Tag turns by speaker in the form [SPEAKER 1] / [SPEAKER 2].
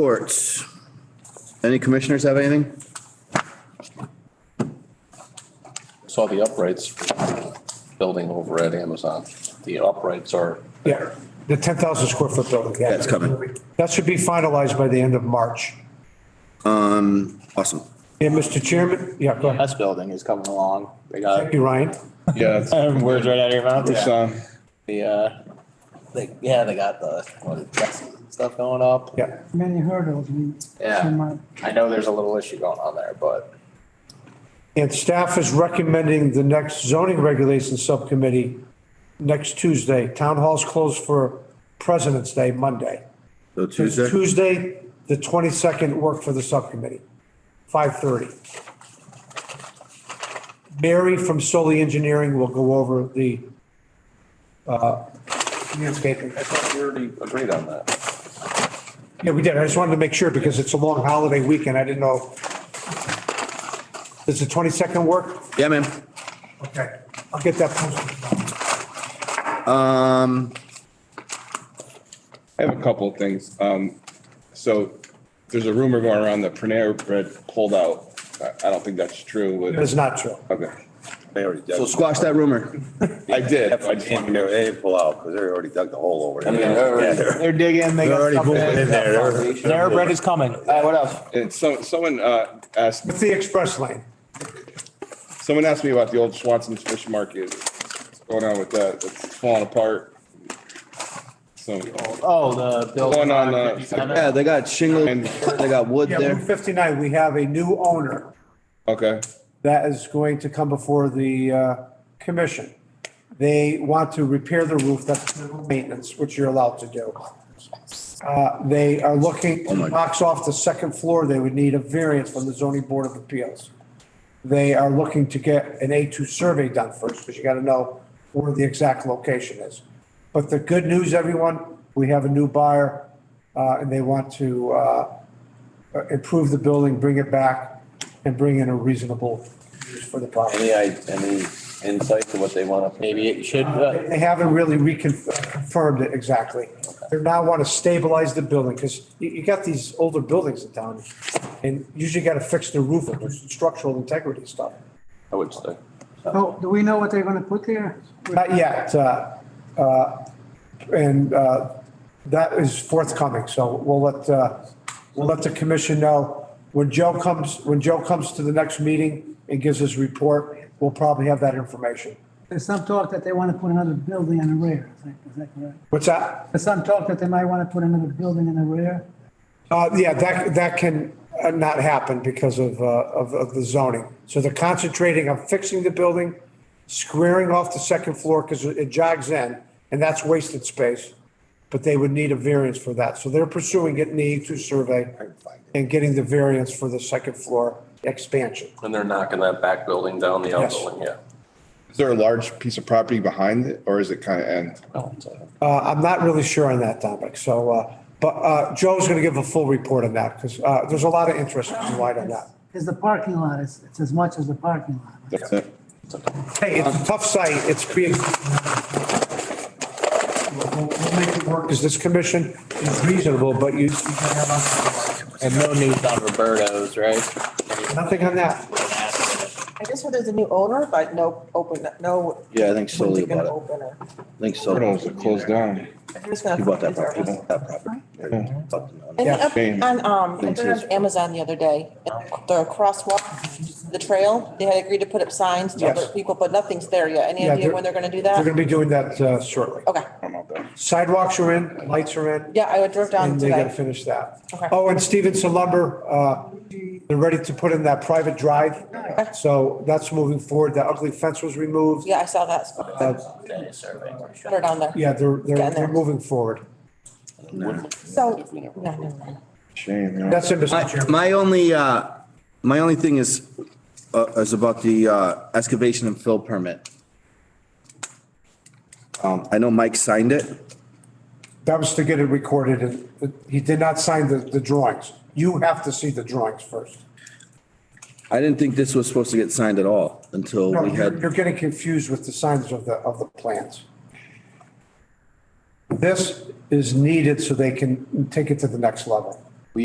[SPEAKER 1] Reports. Any commissioners have anything?
[SPEAKER 2] Saw the uprights building over at Amazon. The uprights are,
[SPEAKER 3] Yeah, the 10,000 square foot building, yeah.
[SPEAKER 1] That's coming.
[SPEAKER 3] That should be finalized by the end of March.
[SPEAKER 1] Awesome.
[SPEAKER 3] And Mr. Chairman, yeah, go ahead.
[SPEAKER 4] This building is coming along. They
[SPEAKER 1] Uh,
[SPEAKER 3] Thank
[SPEAKER 4] got
[SPEAKER 3] you, Ryan.
[SPEAKER 5] Yeah, it's-
[SPEAKER 4] words right out of your mouth.
[SPEAKER 5] it's, um,
[SPEAKER 4] The, uh, they, yeah, they got the, what, the dressing stuff going up.
[SPEAKER 3] Yeah,
[SPEAKER 6] many hurdles. we-
[SPEAKER 4] Yeah.
[SPEAKER 6] we might-
[SPEAKER 4] I know there's a little issue going on there, but
[SPEAKER 3] and staff is recommending the next zoning regulations subcommittee next Tuesday. Town hall's closed for President's Day, Monday.
[SPEAKER 1] So Tuesday,
[SPEAKER 3] Tuesday, the 22nd, work for the subcommittee, 5:30. Mary from Soli Engineering will go over the uh, landscaping.
[SPEAKER 2] I thought we already agreed on that.
[SPEAKER 3] Yeah, we did. I just wanted to make sure because it's a long holiday weekend. I didn't know. Does the 22nd work?
[SPEAKER 1] yeah, ma'am.
[SPEAKER 3] Okay, I'll get that posted.
[SPEAKER 1] Um,
[SPEAKER 5] I have a couple of things. Um, so there's a rumor going around that Panera Bread pulled out. I, I don't think that's true,
[SPEAKER 3] It's
[SPEAKER 5] but,
[SPEAKER 3] not true.
[SPEAKER 5] okay. They already did.
[SPEAKER 1] so squash that rumor.
[SPEAKER 5] I did. I just wanted to know.
[SPEAKER 7] They didn't pull out because they already dug the hole over there.
[SPEAKER 4] they're digging. They got something. Their bread is coming. Uh, what else?
[SPEAKER 5] And so, someone, uh, asked,
[SPEAKER 3] It's the express lane.
[SPEAKER 5] someone asked me about the old Swanson's Fish Market. What's going on with that? It's falling apart. So,
[SPEAKER 4] Oh, the building.
[SPEAKER 5] Going on, uh,
[SPEAKER 4] 57.
[SPEAKER 1] Yeah, they got shingle,
[SPEAKER 5] And-
[SPEAKER 1] they got wood
[SPEAKER 3] Yeah, Route
[SPEAKER 1] there.
[SPEAKER 3] 59, we have a new owner.
[SPEAKER 5] okay.
[SPEAKER 3] that is going to come before the uh, commission. They want to repair the roof, that's minimal maintenance, which you're allowed to do. Uh, They are looking, to box off the second floor, they would need a variance from the zoning board of appeals. They are looking to get an A2 survey done first, because you got to know where the exact location is. But the good news, everyone, we have a new buyer, uh, and they want to uh, improve the building, bring it back, and bring in a reasonable use for the property.
[SPEAKER 2] Any, i- any insight to what they want to?
[SPEAKER 4] Maybe it should, uh,
[SPEAKER 3] They haven't really reconfirmed it exactly. They now want to stabilize the building, because you, you got these older buildings in town, and usually got to fix the roof, and there's structural integrity stuff.
[SPEAKER 2] I would say.
[SPEAKER 6] Oh, do we know what they're gonna put there?
[SPEAKER 3] Not yet, uh, uh, and, uh, that is forthcoming, so we'll let, uh, we'll let the commission know. When Joe comes, when Joe comes to the next meeting and gives his report, we'll probably have that information.
[SPEAKER 6] There's some talk that they wanna put another building in the rear, is that, is that correct?
[SPEAKER 3] What's that?
[SPEAKER 6] There's some talk that they might wanna put another building in the rear.
[SPEAKER 3] Uh, yeah, that, that can uh, not happen because of, uh, of, of the zoning. So they're concentrating on fixing the building, squaring off the second floor because it jogs in and that's wasted space. But they would need a variance for that. So they're pursuing getting the E2 survey and getting the variance for the second floor expansion.
[SPEAKER 2] And they're knocking that back building down, the outbuilding, yeah.
[SPEAKER 5] Is there a large piece of property behind it or is it kind of end?
[SPEAKER 4] Oh,
[SPEAKER 3] Uh, I'm not really sure on that topic. So, uh, but, uh, Joe's going to give a full report on that because, uh, there's a lot of interest in light on that.
[SPEAKER 6] Because the parking lot is, it's as much as the parking lot.
[SPEAKER 5] That's it.
[SPEAKER 3] Hey, it's a tough site, it's being. We'll we'll make it work, because this commission is reasonable, but you,
[SPEAKER 4] and no news on Roberto's, right?
[SPEAKER 3] nothing on that.
[SPEAKER 8] I just heard there's a new owner, but no open, no.
[SPEAKER 1] Yeah, I think slowly
[SPEAKER 8] when's it gonna
[SPEAKER 1] about it.
[SPEAKER 8] open or-
[SPEAKER 1] I think so.
[SPEAKER 5] Portals are closed down.
[SPEAKER 8] who's gonna
[SPEAKER 1] He bought that
[SPEAKER 8] fund it or-
[SPEAKER 1] property, that property.
[SPEAKER 8] And
[SPEAKER 3] Yeah,
[SPEAKER 8] up
[SPEAKER 5] same.
[SPEAKER 8] on, um, I
[SPEAKER 1] Thanks,
[SPEAKER 8] put it
[SPEAKER 1] yes.
[SPEAKER 8] on Amazon the other day, the crosswalk, the trail, they had agreed to put up signs to
[SPEAKER 3] Yes.
[SPEAKER 8] alert people, but nothing's there yet. Any
[SPEAKER 3] Yeah,
[SPEAKER 8] idea
[SPEAKER 3] they're-
[SPEAKER 8] when they're gonna do
[SPEAKER 3] We're
[SPEAKER 8] that?
[SPEAKER 3] gonna be doing that uh, shortly.
[SPEAKER 8] Okay,
[SPEAKER 5] I don't know about that.
[SPEAKER 3] Sidewalks are in, lights are in.
[SPEAKER 8] yeah, I drove down
[SPEAKER 3] And they gotta
[SPEAKER 8] today.
[SPEAKER 3] finish that.
[SPEAKER 8] Okay.
[SPEAKER 3] Oh, and Stevenson Lumber, uh, they're ready to put in that private drive. So that's moving forward. The ugly fence was removed.
[SPEAKER 8] Yeah, I saw that.
[SPEAKER 3] Uh,
[SPEAKER 8] Put her down there.
[SPEAKER 3] Yeah, they're, they're,
[SPEAKER 8] Getting there.
[SPEAKER 3] they're moving forward.
[SPEAKER 8] So, no, no, no.
[SPEAKER 5] Shame, you know.
[SPEAKER 3] That's it, Mr.
[SPEAKER 1] My,
[SPEAKER 3] Chairman.
[SPEAKER 1] my only, uh, my only thing is, uh, is about the, uh, excavation and fill permit. Um, I know Mike signed it.
[SPEAKER 3] That was to get it recorded, and he did not sign the, the drawings. You have to see the drawings first.
[SPEAKER 1] I didn't think this was supposed to get signed at all until
[SPEAKER 3] No,
[SPEAKER 1] we
[SPEAKER 3] you're,
[SPEAKER 1] had,
[SPEAKER 3] you're getting confused with the signs of the, of the plans. This is needed so they can take it to the next level.